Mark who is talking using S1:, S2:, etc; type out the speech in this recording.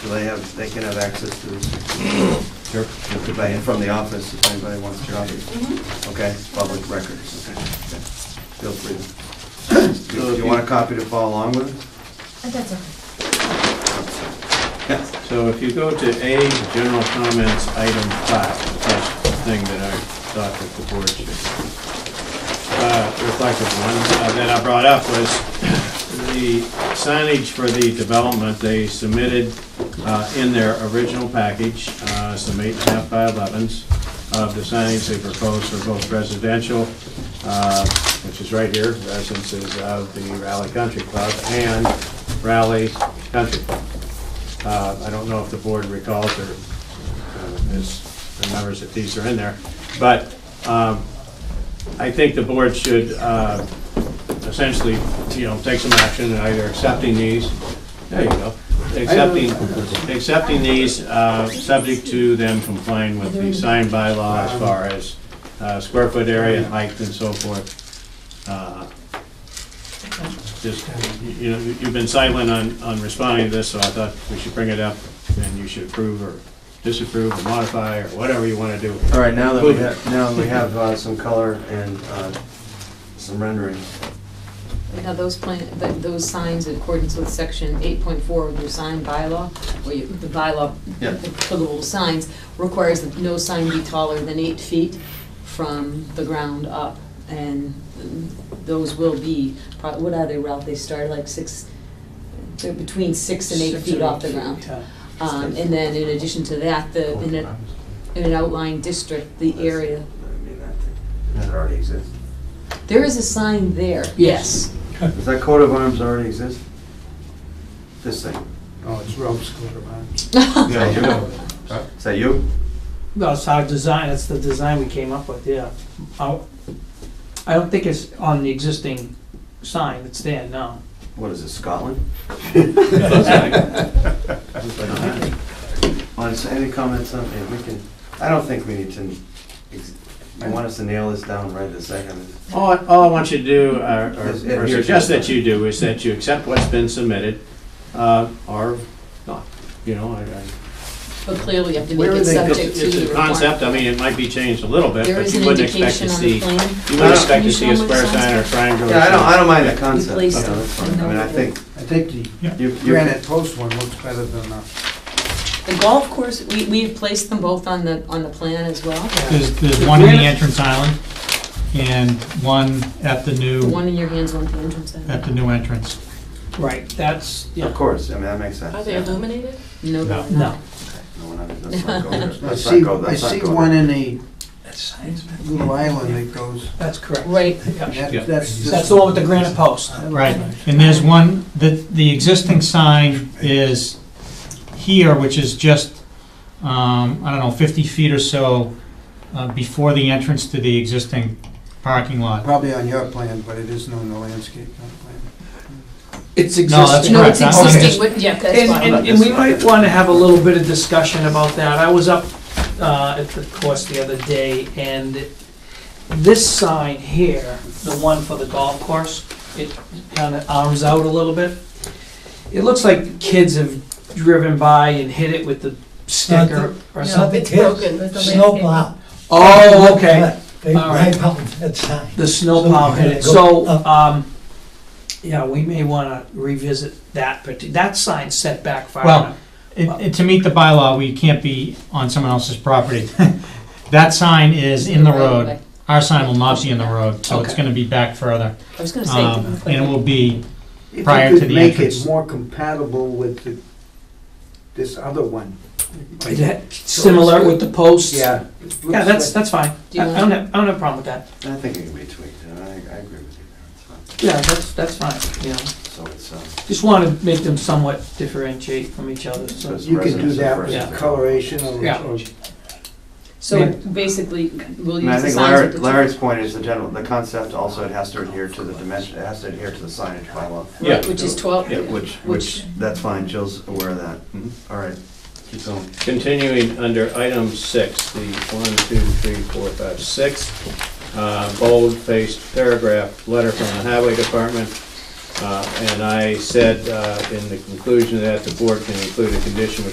S1: So they have, they can have access to this
S2: Sure.
S1: if they- from the office if anybody wants to, obviously.
S3: Mhm.
S1: Okay, it's public records, okay. okay. Feel free. Do you want a copy to follow along with?
S3: But That's okay.
S1: Yes.
S2: So if you go to A, general comments, item five, that's the thing that I thought that the board should uh, reflect upon, uh, that I brought up was the signage for the development, they submitted uh, in their original package, uh, some eight and a half by elevens of the signage they proposed for both residential, uh, which is right here, residences of the Raleigh Country Club and Raleigh Country Club. Uh, I don't know if the board recalls or uh, is, remembers that these are in there, but um, I think the board should uh, essentially, you know, take some action in either accepting these, there you go, accepting, accepting these, uh, subject to them complying with the sign bylaw as far as uh, square foot area, height and so forth. Uh, just, you know, you've been silent on, on responding to this, so I thought we should bring it up, and you should approve or disapprove or modify, or whatever you wanna do.
S1: All right, now that we have, now that we have uh, some color and uh, some renderings.
S4: Now, those plan, th- those signs in accordance with section eight point four of your sign bylaw, where you, the bylaw,
S1: Yeah.
S4: the applicable signs, requires that no sign be taller than eight feet from the ground up. And mm, those will be, prob- what are they, Ralph? They start like six, they're between six and eight feet off the ground. Um, and then in addition to that, the, in an, in an outlying district, the area,
S1: I mean, that thing, that already exists.
S4: there is a sign there, yes.
S1: Does that coat of arms already exist? This thing?
S5: Oh, it's Rome's coat of arms.
S1: Yeah, you know. Is that you?
S5: No, it's our design, it's the design we came up with, yeah. I I don't think it's on the existing sign that's there now.
S1: What is it, Scotland? uh, On, s- any comments on, yeah, we can, I don't think we need to, ex- you want us to nail this down right this second?
S2: All, I- all I want you to do, uh, or-
S1: Is
S2: or or
S1: adhere to
S2: suggest
S1: the-
S2: that you do, is that you accept what's been submitted, uh, or not, you know, I, I.
S4: But clearly you have to make
S1: Where are
S4: it
S1: they-
S4: subject
S2: It's
S4: to
S2: it's
S4: the
S2: a
S4: requirement.
S2: concept, I mean, it might be changed a little bit,
S4: There
S2: but
S4: is
S2: you
S4: an
S2: wouldn't expect
S4: indication
S2: to
S4: on the
S2: see,
S4: plan.
S2: you wouldn't
S1: Uh,
S2: expect
S4: Can
S2: to
S4: you
S2: see a
S4: show 'em what
S2: square
S4: signs
S2: sign or a
S4: are?
S2: triangle. or
S1: Yeah, I don't, I
S2: something.
S1: don't mind the concept, you
S4: Replace
S1: know, that's fine. I mean, I think,
S6: I think the
S1: you, you.
S6: granite post one looks better than the,
S4: The golf course, we, we've placed them both on the, on the plan as well.
S7: There's, there's one in the entrance island and one at the
S4: The
S7: new,
S4: one in your hands, one at the entrance. I think.
S7: at the new entrance.
S5: Right, that's,
S1: Of
S5: yeah.
S1: course, I mean, that makes sense.
S8: Are they
S1: yeah.
S8: illuminated?
S4: No,
S7: No.
S4: they're
S5: No.
S4: not.
S1: No, we're not- let's not go there.
S6: I
S1: Let's
S6: see,
S1: not go there.
S6: I
S1: Let's not
S6: see
S1: go there.
S6: one in a
S5: That's
S6: little island that goes,
S5: correct.
S4: Right,
S6: that-
S7: Yeah.
S6: that's just.
S5: That's the one with the granite post.
S7: Right, and there's one, the, the existing sign is here, which is just, um, I don't know, fifty feet or so uh, before the entrance to the existing parking lot.
S6: Probably on your plan, but it isn't on the landscape plan.
S5: It's
S7: No, that's
S4: no, it's
S7: correct. I'm- I'm just-
S4: existing, What- yeah, that's
S5: And,
S4: fine.
S5: and, and we might wanna have a little bit of discussion about that. I was up, uh, at the course the other day, and this sign here, the one for the golf course, it kinda arms out a little bit. It looks like kids have driven by and hit it with the sticker or something.
S8: It's broken.
S9: Snowplow.
S5: Oh, okay,
S9: They,
S5: All right.
S9: they pumped that sign.
S5: the snowplow hit it, so, um, yeah, we may wanna revisit that, but that sign's set back far
S7: Well,
S5: enough.
S7: It- it- To meet the bylaw, we can't be on someone else's property. That sign is in the road. Our sign will not be in the road, so it's
S5: Okay.
S7: gonna be back further.
S4: I was gonna
S7: Um,
S4: say.
S7: And it will be,
S6: If
S7: Prior
S6: you
S7: to
S6: could
S7: the
S6: make
S7: entrance.
S6: it more compatible with the, this other one.
S5: Is that Similar with the posts?
S6: Yeah. it looks
S5: Yeah, that's,
S6: like-
S5: that's fine.
S4: Do
S5: I
S4: you
S5: I don't have, I don't have a problem with that.
S1: I think it can be tweaked, and I, I agree with you there, it's fine.
S5: Yeah, that's, that's fine, you know.
S1: So it's, um,
S5: Just want to make them somewhat differentiate from each other, so.
S1: Says-
S6: You could do
S1: Residents
S6: that
S1: of
S6: with
S1: residents.
S6: coloration or.
S5: Yeah.
S6: or-
S4: So basically, we'll
S1: And I
S4: use the
S1: think
S4: signs
S1: Larry,
S4: with the.
S1: Larry's point is the general, the concept also, it has to adhere to the dimension, it has to adhere to the signage bylaw.
S2: Yeah.
S4: Which is twelve.
S2: Yeah, which-
S4: Which,
S1: That's fine, Jill's aware of that. Mm-hmm.
S2: Mhm.
S1: All right, keep going.
S2: Continuing under item six, the one, two, three, four, five, six, uh, bold-faced paragraph, letter from the highway department. Uh, And I said uh, in the conclusion of that the board can include a condition which